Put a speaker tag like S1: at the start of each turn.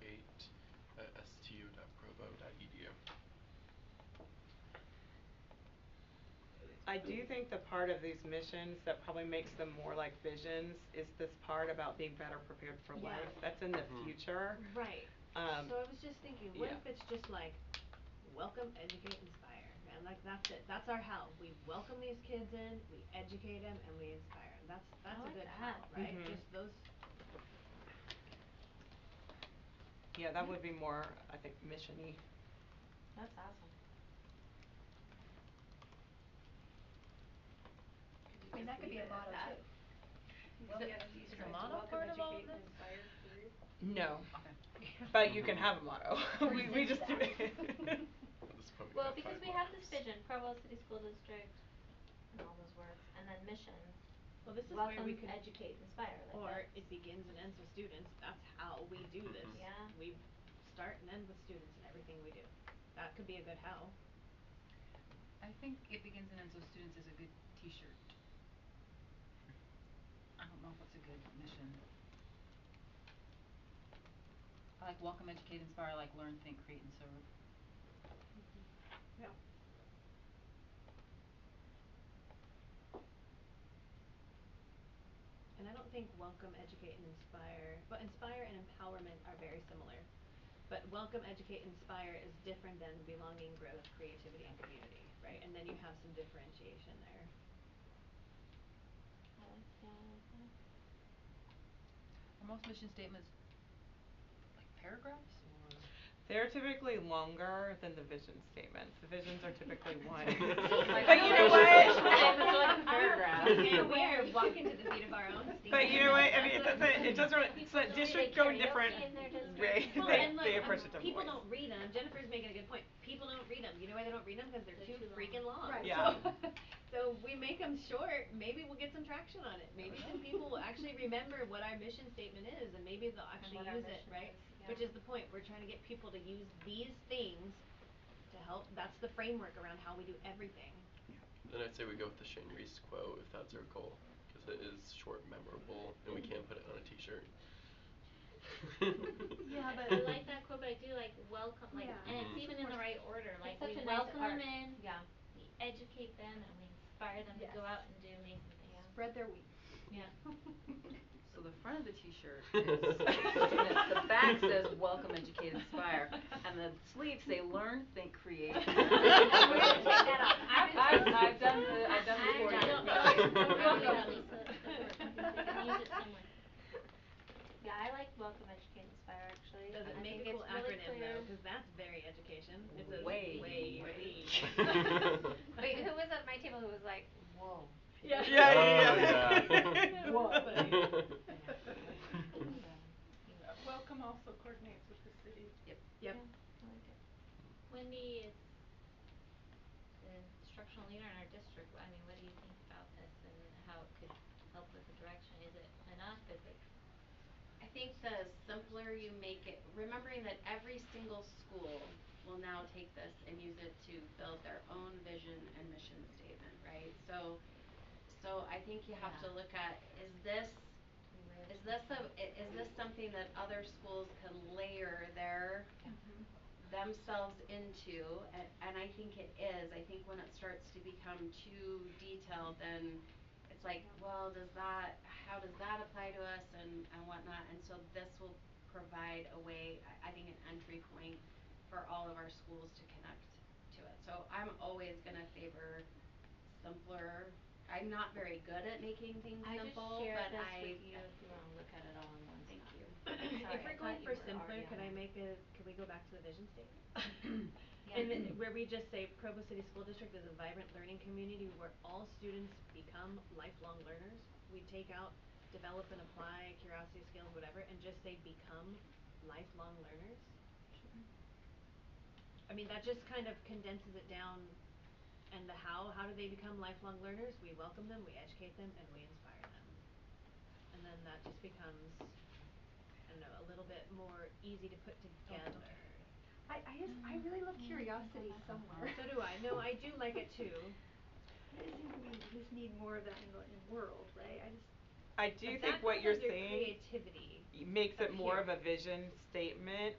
S1: uh, E
S2: I do think the part of these missions that probably makes them more like visions is this part about being better prepared for
S3: Yeah.
S2: life. That's in the
S1: Mhm.
S2: future.
S3: Right.
S2: Um,
S3: So I was just thinking, what
S2: yeah.
S3: if it's just like, welcome, educate, inspire, and like that's it, that's our how, we welcome these kids in, we educate them, and we inspire 'em. that's, that's a
S4: like
S3: good how,
S4: that.
S3: right?
S2: Mhm.
S3: Just those,
S2: Yeah, that would be more, I think, mission-y.
S4: That's awesome.
S5: I mean, that could be a motto too. Welcome, you
S4: is the
S5: strive to
S4: motto
S5: welcome,
S4: part of all
S5: educate, and
S4: this?
S5: inspire through.
S2: No, but you can
S1: Mhm.
S2: have a motto.
S4: Or
S2: We, we
S4: just
S2: just do it.
S4: that.
S1: Let's put we
S4: Well,
S1: got
S4: because
S1: five
S4: we have
S1: markers.
S4: this vision, Provo City School District, and all those words, and then mission,
S3: well, this is where
S4: welcome,
S3: we could,
S4: educate, inspire,
S3: or
S4: like
S3: it
S4: that's,
S3: begins and ends with students, that's how we do this.
S1: Mhm.
S4: Yeah.
S3: We start and end with students in everything we do, that could be a good how.
S6: I think it begins and ends with students is a good t-shirt. I don't know if it's a good mission. I like welcome, educate, inspire, I like learn, think, create, and serve.
S3: Yeah. And I don't think welcome, educate, and inspire, but inspire and empowerment are very similar. But welcome, educate, inspire is different than belonging, growth, creativity, and community, right? And then you have some differentiation there.
S4: I like, yeah, I like that.
S6: Are most mission statements like paragraphs or?
S2: They're typically longer than the vision statements. The visions are typically one.
S1: Like,
S2: But you know what?
S1: vision.
S4: It's like a paragraph.
S3: Yeah, we are walking to the beat of our own steam.
S2: But you know what, I mean, it doesn't, it doesn't really, it's like
S4: People do
S2: district
S4: the
S2: go in
S4: karaoke
S2: different
S4: in their district.
S2: way,
S3: Well,
S2: they,
S3: and look,
S2: they
S3: um,
S2: approach it different ways.
S3: people don't read them, Jennifer's making a good point, people don't read them, you know why they don't read them, cause they're too
S4: They're too
S3: freaking long, so.
S5: long. Right.
S2: Yeah.
S3: So we make them short, maybe we'll get some traction on it, maybe some people will actually remember what our mission statement is, and maybe they'll actually
S4: what our
S3: use it,
S4: mission
S3: right?
S4: is, yeah.
S3: Which is the point, we're trying to get people to use these things to help, that's the framework around how we do everything.
S1: Then I'd say we go with the Shane Reese quote if that's our goal, because it is short, memorable, and we can't put it on a T-shirt.
S5: Yeah, but
S4: I like that quote, but I do like welcome, like,
S3: Yeah.
S4: and it's
S1: Mhm.
S4: even in the right order,
S5: It's
S4: like
S5: such
S4: we
S5: a nice
S4: welcome them
S5: art.
S4: in,
S5: Yeah.
S4: we educate them, and we inspire them to go
S5: Yes.
S4: out and do amazing things.
S3: Spread their wings.
S4: Yeah.
S6: So the front of the t-shirt is students, the back says welcome, educate, inspire, and the sleeves say learn, think, create.
S3: We're
S1: gonna
S6: take
S1: take that
S4: off.
S6: I've
S4: I've-
S6: I've done the, I've done the
S4: I've
S6: for you.
S4: done
S1: it.
S4: Yeah, I like welcome, educate, inspire actually.
S3: Does it
S4: I
S3: make
S4: think
S3: a cool
S4: it's really
S3: acronym
S4: clear.
S3: though, 'cause that's very education, it says
S6: Way.
S3: way,
S6: Way.
S3: way.
S4: Wait, who was at my table who was like, whoa.
S3: Yeah.
S2: Yeah, yeah,
S1: Oh,
S2: yeah.
S1: yeah.
S3: Whoa.
S5: Uh, Welcome also coordinates with the city.
S6: Yep.
S3: Yep.
S4: Yeah, I like it. Wendy is the instructional leader in our district, I mean, what do you think about this and how it could help with the direction, is it enough, is it?
S7: I think the simpler you make it, remembering that every single school will now take this and use it to build their own vision and mission statement, right? So, so I think you have to
S4: Yeah.
S7: look at, is this,
S4: Live.
S7: is this a, i- is this something that other schools can layer their
S4: Mm-hmm.
S7: themselves into, and, and I think it is, I think when it starts to become too detailed, then it's like, well, does that, how does that apply to us and, and whatnot, and so this will provide a way, I, I think an entry point for all of our schools to connect to it, so I'm always gonna favor simpler, I'm not very good at making things
S4: I just
S7: simple,
S4: shared
S7: but
S4: this
S7: I,
S4: with you if you wanna look at it all in one
S7: Thank
S4: spot.
S7: you.
S3: If
S4: Sorry, I
S3: we're
S4: thought
S3: going
S4: you
S3: for
S4: were
S3: simpler,
S4: already
S3: could
S4: on
S3: I
S4: it.
S3: make a, could we go back to the vision statement?
S4: Yeah.
S3: And then where we just say Provo City School District is a vibrant learning community where all students become lifelong learners. We take out develop and apply, curiosity, skills, whatever, and just say become lifelong learners. I mean, that just kind of condenses it down and the how, how do they become lifelong learners? We welcome them, we educate them, and we inspire them. And then that just becomes, I don't know, a little bit more easy to put together.
S5: I, I just, I really love curiosity somewhere.
S3: So do I, no, I do like it too.
S5: It seems to me we just need more of that in the, in the world, right? I
S2: I
S5: just,
S2: do
S3: But
S2: think
S3: that
S2: what you're
S3: comes under
S2: saying
S3: creativity.
S2: makes
S3: up
S2: it more
S3: here.
S2: of a vision statement.